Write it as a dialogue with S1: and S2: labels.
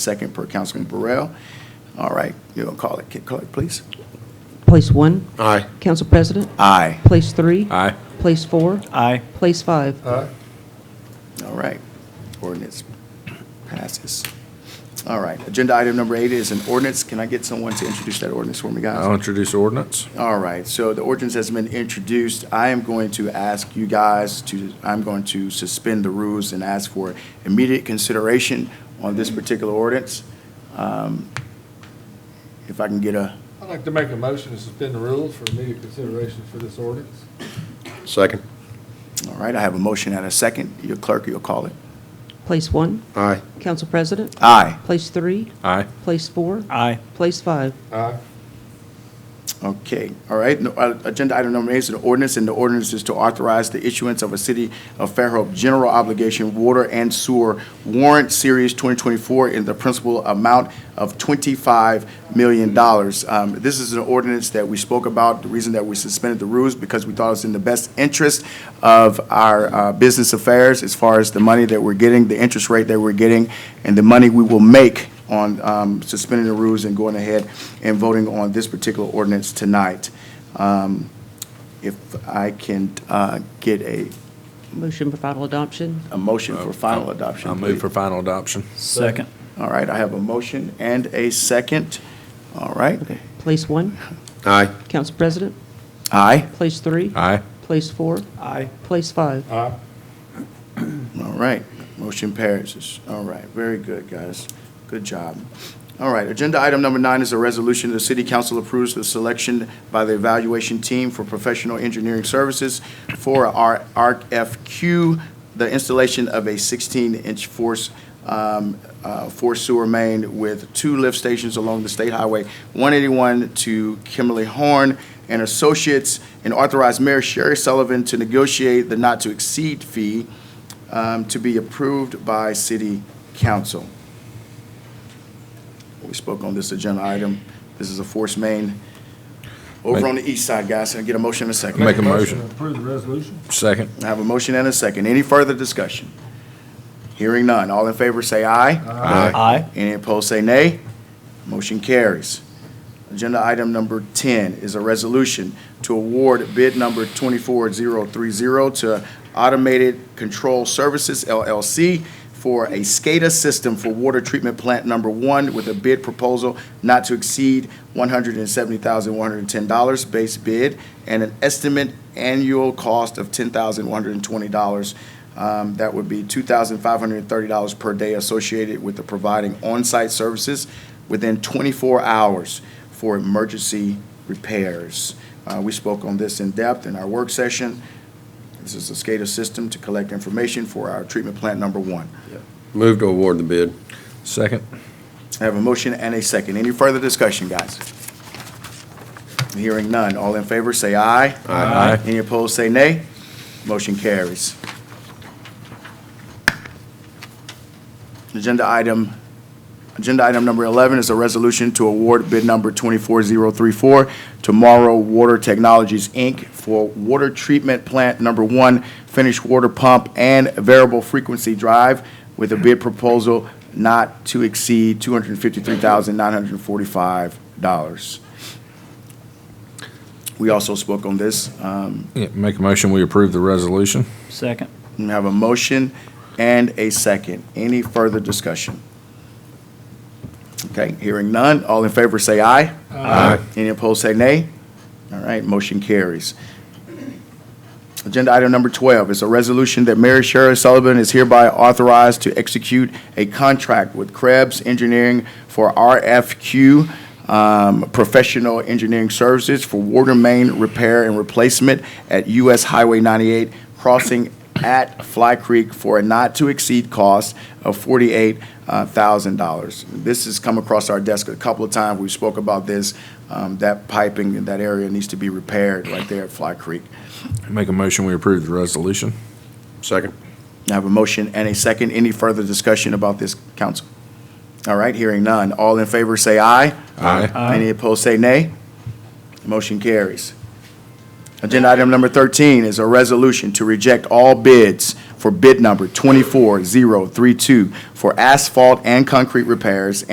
S1: Second per Councilman Burrell. All right, you'll call it, Kid Clerk, please.
S2: Place one,
S3: Aye.
S2: Council President.
S1: Aye.
S2: Place three.
S3: Aye.
S2: Place four.
S4: Aye.
S2: Place five.
S1: All right, ordinance passes. All right, agenda item number eight is an ordinance. Can I get someone to introduce that ordinance for me, guys?
S3: I'll introduce ordinance.
S1: All right, so the ordinance has been introduced. I am going to ask you guys to, I'm going to suspend the rules and ask for immediate consideration on this particular ordinance. Um, If I can get a,
S5: I'd like to make a motion to suspend the rules for immediate consideration for this ordinance.
S3: Second.
S1: all right, I have a motion and a second. Your clerk, you'll call it.
S2: Place one,
S3: Aye.
S2: Council President.
S1: Aye.
S2: Place three.
S3: Aye.
S2: Place four.
S4: Aye.
S2: Place five.
S5: Aye.
S1: Okay, all right. No, uh, Agenda item number eight is an ordinance, and the ordinance is to authorize the issuance of a City of Fairhope General Obligation Water and Sewer Warrant Series 2024 in the principal amount of $25 million. Um, This is an ordinance that we spoke about. The reason that we suspended the rules, because we thought it was in the best interest of our uh, business affairs as far as the money that we're getting, the interest rate that we're getting, and the money we will make on um, suspending the rules and going ahead and voting on this particular ordinance tonight. Um, If I can uh, get a,
S2: Motion for final adoption.
S1: a motion for final adoption.
S3: I'll move for final adoption.
S4: Second.
S1: please. All right, I have a motion and a second. All right.
S2: Place one,
S3: Aye.
S2: Council President.
S1: Aye.
S2: Place three.
S3: Aye.
S2: Place four.
S4: Aye.
S2: Place five.
S5: Aye.
S1: All right, motion passes. All right, very good, guys. Good job. All right, agenda item number nine is a resolution, the city council approves the selection by the evaluation team for professional engineering services for our RFQ, the installation of a 16-inch force, um, uh, force sewer main with two lift stations along the State Highway 181 to Kimberly Horn and Associates, and authorize Mayor Sherry Sullivan to negotiate the not-to-exceed fee um, to be approved by city council. We spoke on this agenda item. This is a force main over
S3: Make-
S1: on the east side, guys. Can I get a motion and a second?
S3: Make a motion.
S5: to Approve the resolution.
S3: Second.
S1: I have a motion and a second. Any further discussion? Hearing none. All in favor, say aye.
S3: Aye.
S4: Aye.
S1: Any opposed, say nay. Motion carries. Agenda item number 10 is a resolution to award bid number 24030 to Automated Control Services LLC for a SCADA system for water treatment plant number one with a bid proposal not to exceed $170,110 base bid and an estimate annual cost of $10,120. Um, That would be $2,530 per day associated with the providing on-site services within 24 hours for emergency repairs. Uh, We spoke on this in depth in our work session. This is a SCADA system to collect information for our treatment plant number one.
S3: Move to award the bid. Second.
S1: I have a motion and a second. Any further discussion, guys? Hearing none. All in favor, say aye.
S3: Aye. Aye.
S1: Any opposed, say nay. Motion carries. Agenda item, agenda item number 11 is a resolution to award bid number 24034 to Morrow Water Technologies, Inc. for water treatment plant number one, finished water pump and variable frequency drive with a bid proposal not to exceed $253,945. We also spoke on this. Um,
S3: Yeah, Make a motion, we approve the resolution.
S4: Second.
S1: We have a motion and a second. Any further discussion? Okay, hearing none. All in favor, say aye.
S3: Aye.
S1: Any opposed, say nay. All right, motion carries. Agenda item number 12 is a resolution that Mary Sherri Sullivan is hereby authorized to execute a contract with Krebs Engineering for RFQ um, Professional Engineering Services for water main repair and replacement at US Highway 98 crossing at Fly Creek for a not-to-exceed cost of $48,000. This has come across our desk a couple of times. We spoke about this. Um, That piping in that area needs to be repaired right there at Fly Creek.
S3: Make a motion, we approve the resolution. Second.
S1: I have a motion and a second. Any further discussion about this, council? All right, hearing none. All in favor, say aye.
S3: Aye.
S4: Aye.
S1: Any opposed, say nay. Motion carries. Agenda item number 13 is a resolution to reject all bids for bid number 24032 for asphalt and concrete repairs